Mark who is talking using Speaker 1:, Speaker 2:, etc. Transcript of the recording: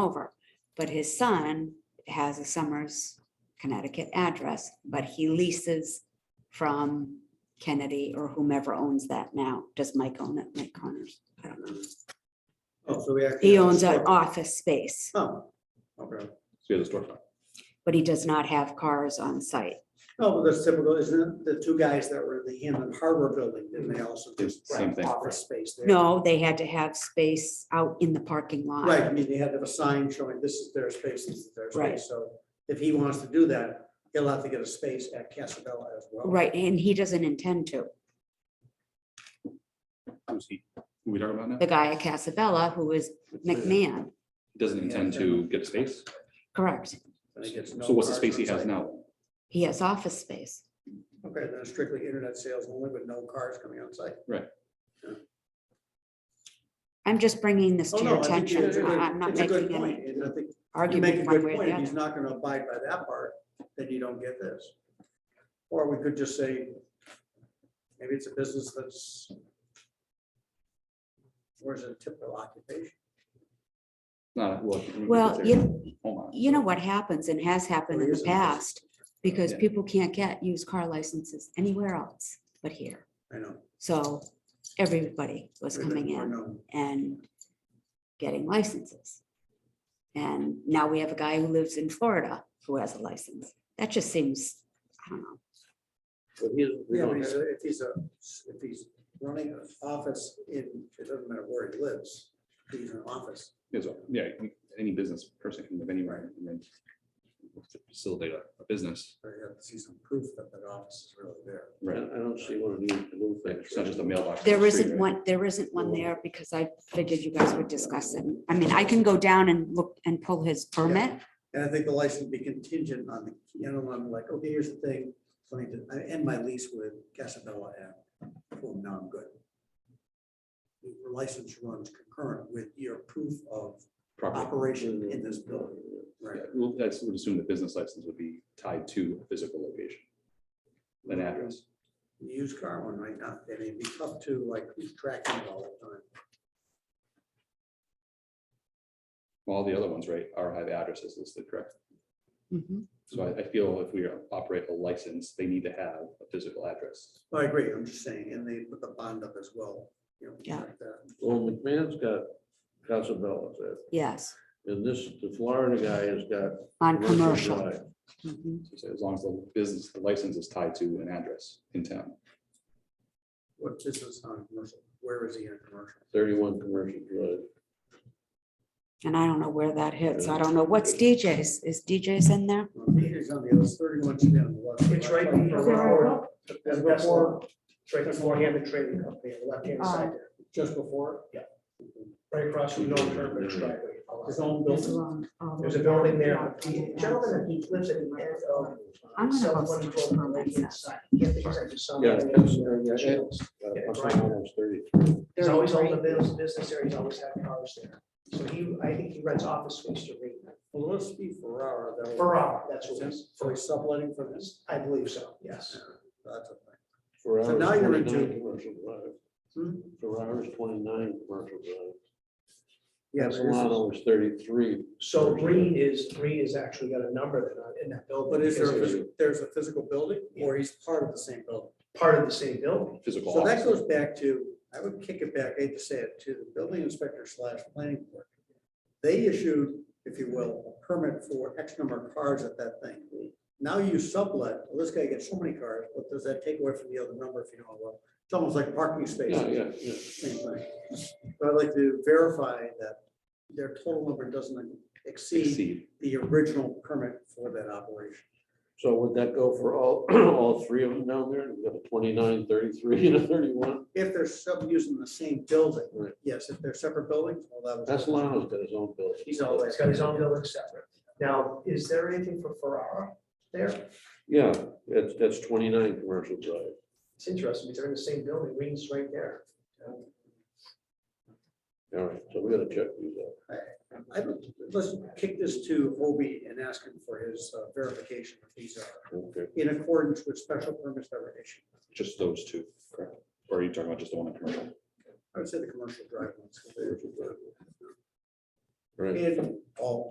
Speaker 1: over. But his son has a Summers, Connecticut address, but he leases from Kennedy or whomever owns that now. Does Mike own it? Mike Connors? I don't know.
Speaker 2: Oh, so we actually.
Speaker 1: He
Speaker 2: have a
Speaker 1: owns an
Speaker 2: store.
Speaker 1: office space,
Speaker 2: Oh, okay.
Speaker 3: So you have the storefront.
Speaker 1: but he does not have cars on site.
Speaker 2: No, but Oh, that's typical, isn't it? The two guys that were in the Hammond Harbor building, didn't they also just
Speaker 3: Same
Speaker 2: rent
Speaker 3: thing.
Speaker 2: office space there?
Speaker 1: No, they had to have space out in the parking lot.
Speaker 2: Right, I mean, they had to have a sign showing this is their space, this is their
Speaker 1: Right.
Speaker 2: space. So if he wants to do that, he'll have to get a space at Casabella as well.
Speaker 1: Right, and he doesn't intend to.
Speaker 3: Who's he? Who we talking about now?
Speaker 1: The guy at Casabella, who is McMahon,
Speaker 3: Doesn't intend to get a space?
Speaker 1: correct.
Speaker 2: And he gets no
Speaker 3: So what's the
Speaker 2: cars
Speaker 3: space he
Speaker 2: on
Speaker 3: has
Speaker 2: site.
Speaker 3: now?
Speaker 1: He has office space.
Speaker 2: Okay, then it's strictly internet sales only with no cars coming on site.
Speaker 1: I'm just bringing this
Speaker 2: Oh,
Speaker 1: to
Speaker 2: no,
Speaker 1: your
Speaker 2: I think
Speaker 1: attention.
Speaker 2: it's a good-
Speaker 1: I- I'm not
Speaker 2: it's a good
Speaker 1: making
Speaker 2: point,
Speaker 1: any
Speaker 2: and I think You make a
Speaker 1: argument one
Speaker 2: good
Speaker 1: way or the
Speaker 2: point. If He's
Speaker 1: other.
Speaker 2: not gonna abide by that part, then you don't get this. Or we could just say, maybe it's a business that's where's a typical occupation?
Speaker 3: Not, well. it's-
Speaker 1: Well,
Speaker 3: it's there.
Speaker 1: you,
Speaker 3: Hold on.
Speaker 1: you know what happens and has happened in the
Speaker 2: Tourism is-
Speaker 1: past, because
Speaker 3: Yeah.
Speaker 1: people can't get used car licenses anywhere else but here.
Speaker 2: I know.
Speaker 1: So everybody was coming
Speaker 2: Or
Speaker 1: in
Speaker 2: no.
Speaker 1: and getting licenses. And now we have a guy who lives in Florida who has a license. That just seems, I don't know.
Speaker 2: Yeah, but he's a- If he's a, if he's running an office in, it doesn't matter where he lives, he's in an office.
Speaker 3: Yeah, so- Yeah, any business person can live anywhere and then facilitate a a business,
Speaker 2: So you have to see some proof that that office is really there.
Speaker 4: I I
Speaker 3: right?
Speaker 4: don't see one of these blue things.
Speaker 3: It's not just a mailbox. on the
Speaker 1: There
Speaker 3: street,
Speaker 1: isn't
Speaker 3: right?
Speaker 1: one, there isn't one there because I figured you guys would discuss it. I mean, I can go down and look and pull his permit.
Speaker 2: And I think the license be contingent on the, you know, I'm like, okay, here's the thing, so I need to- I end my lease with Casabella and, well, now I'm good. Your license runs concurrent with your proof of
Speaker 3: Property.
Speaker 2: operation in this building, right?
Speaker 3: Yeah, Well, that's, would assume the business license would be tied to a physical location, an address.
Speaker 2: The Used car one right now, and it'd be tough to like keep tracking it all the time.
Speaker 3: All the other ones, right, are have addresses listed, correct?
Speaker 1: Mhm.
Speaker 3: So I, I feel if we operate a license, they need to have a physical address.
Speaker 2: Well, I agree, I'm just saying, and they put the bond up as well, you know.
Speaker 1: Yeah.
Speaker 2: like that.
Speaker 4: Well, McMahon's got Casabella there,
Speaker 1: Yes,
Speaker 4: and this, the Florida guy has got.
Speaker 1: on commercial.
Speaker 4: drive.
Speaker 1: Mhm.
Speaker 3: So As long as the business, the license is tied to an address in town.
Speaker 2: What business on commercial, where is he in commercial?
Speaker 4: Thirty-one commercial drive.
Speaker 1: And I don't know where that hits. I don't know. What's DJ's? Is DJ's in there?
Speaker 2: Well, He's on the other thirty-one, should be on the left.
Speaker 5: It's right
Speaker 2: Right.
Speaker 5: before, it's before, Uh, it's right before Hammond Trading Company, on the left-hand side, there,
Speaker 2: Just before?
Speaker 5: right across from North Turnberg's driveway.
Speaker 2: His own
Speaker 1: It's
Speaker 2: building.
Speaker 1: wrong. Oh,
Speaker 5: There's a building there.
Speaker 1: yeah.
Speaker 5: Gentleman, he lives in.
Speaker 2: um,
Speaker 5: uh,
Speaker 1: I'm gonna
Speaker 5: South
Speaker 1: go see
Speaker 5: 112 on the right hand side. Yeah, because I just saw
Speaker 4: Yeah,
Speaker 5: that.
Speaker 4: that's, uh, yeah, that's, uh,
Speaker 5: Yeah,
Speaker 4: plus or
Speaker 5: right.
Speaker 4: minus 30.
Speaker 5: He's always owned the business, business there, he's always had cars there. So he, I think he rents office space to read.
Speaker 2: Well, let's be Ferrara. that was-
Speaker 5: Ferrara, that's what it is.
Speaker 2: So he's subletting for this?
Speaker 5: I believe so, yes.
Speaker 2: That's a thing.
Speaker 4: Ferrara's
Speaker 2: So now you're into-
Speaker 4: 29 Commercial drive.
Speaker 2: Hmm?
Speaker 4: Ferrara's twenty-nine commercial drive.
Speaker 2: Yeah, but this is-
Speaker 4: Solano was thirty-three.
Speaker 5: So Reed is, Reed is actually got a number that, uh, in that building.
Speaker 2: but is there, a
Speaker 5: because
Speaker 2: phys- there's a physical building or he's part of the same building?
Speaker 5: it's Part of the same building.
Speaker 3: Physical.
Speaker 2: So that
Speaker 3: office.
Speaker 2: goes back to, I would kick it back, I hate to say it, to the building inspector slash planning board. They issued, if you will, a permit for X number of cars at that thing. Now you sublet, well, this guy gets so many cars, what does that take away from the other number if you know, well, it's almost like parking
Speaker 4: Yeah,
Speaker 2: spaces.
Speaker 4: yeah, yeah.
Speaker 2: same thing. But I'd like to verify that their total number doesn't exceed
Speaker 3: Exceed.
Speaker 2: the original permit for that operation.
Speaker 4: So would that go for all, all three of them down there? We've got a 29, 33, and a thirty-one.
Speaker 2: If they're sub using the same building,
Speaker 4: Right.
Speaker 2: yes, if they're separate buildings, well, that was.
Speaker 4: That's Solano's got his own building.
Speaker 5: He's always got his own building separate. Now, is there anything for Ferrara there?
Speaker 4: Yeah, that's, that's twenty-nine commercial drive.
Speaker 5: It's interesting, because they're in the same building, Wings right there.
Speaker 4: All right, so we gotta check these out.
Speaker 2: I would, let's kick this to Obi and ask him for his uh, verification if these are
Speaker 4: Okay,
Speaker 2: in accordance with special permits that were issued.
Speaker 3: Just those two, correct? Or are you talking about just the one in commercial?
Speaker 2: I would say the commercial drive ones. 'cause they're-
Speaker 6: Right.
Speaker 5: And all